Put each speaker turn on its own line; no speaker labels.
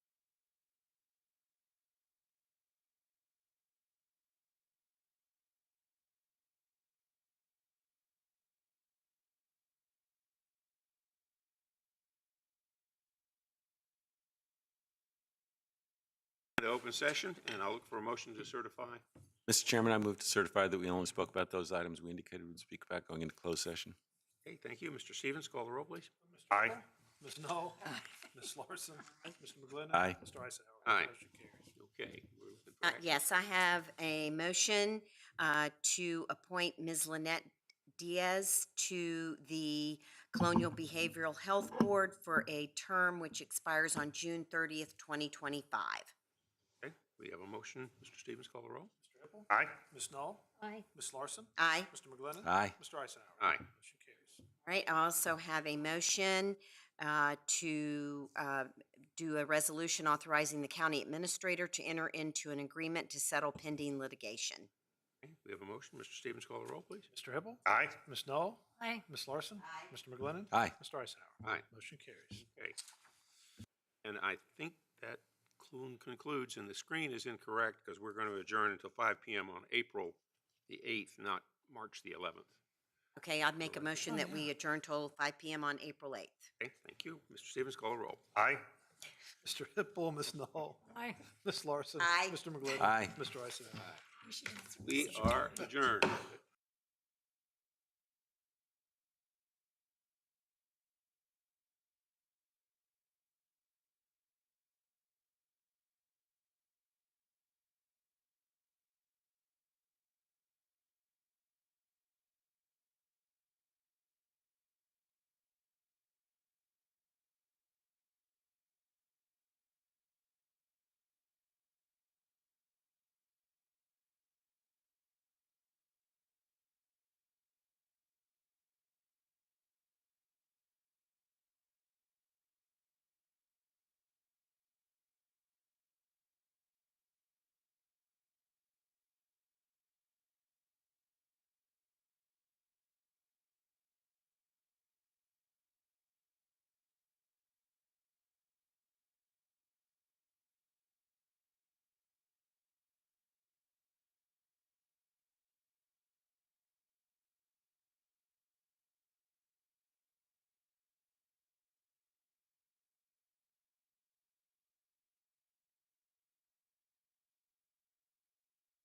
into open session, and I'll look for a motion to certify.
Mr. Chairman, I move to certify that we only spoke about those items we indicated we'd speak about going into closed session.
Okay, thank you. Mr. Stevens, call the roll, please.
Aye.
Ms. Knoll, Ms. Larson, Mr. McGlinnan.
Aye.
Mr. Eisenhower.
Aye.
Motion carries.
Okay. we're looking for
Uh,
action.
Yes, I have a motion uh, to appoint Ms. Lynette Diaz to the Colonial Behavioral Health Board for a term which expires on June 30th, 2025.
Okay, we have a motion. Mr. Stevens, call the roll.
Mr. Hippel,
Aye.
Ms. Knoll,
Aye.
Ms. Larson,
Aye.
Mr. McGlinnan.
Aye.
Mr. Eisenhower.
Aye.
Motion carries.
All right, I also have a motion uh, to uh, do a resolution authorizing the county administrator to enter into an agreement to settle pending litigation.
Okay, We have a motion. Mr. Stevens, call the roll, please.
Mr. Hippel,
Aye.
Ms. Knoll,
Aye.
Ms. Larson.
Aye.
Mr. McGlinnan.
Aye.
Mr. Eisenhower.
Aye.
Motion carries.
Okay. And I think that clun- concludes, and the screen is incorrect because we're going to adjourn until 5 PM on April the 8th, not March the 11th.
Okay, I'd make a motion that we adjourn till 5 PM on April 8th.
Okay, thank you. Mr. Stevens, call the roll.
Aye.
Mr. Hippel, Ms. Knoll,
Aye.
Ms. Larson.
Aye.
Mr. McGlinnan.
Aye.
Mr. Eisenhower.
We are adjourned.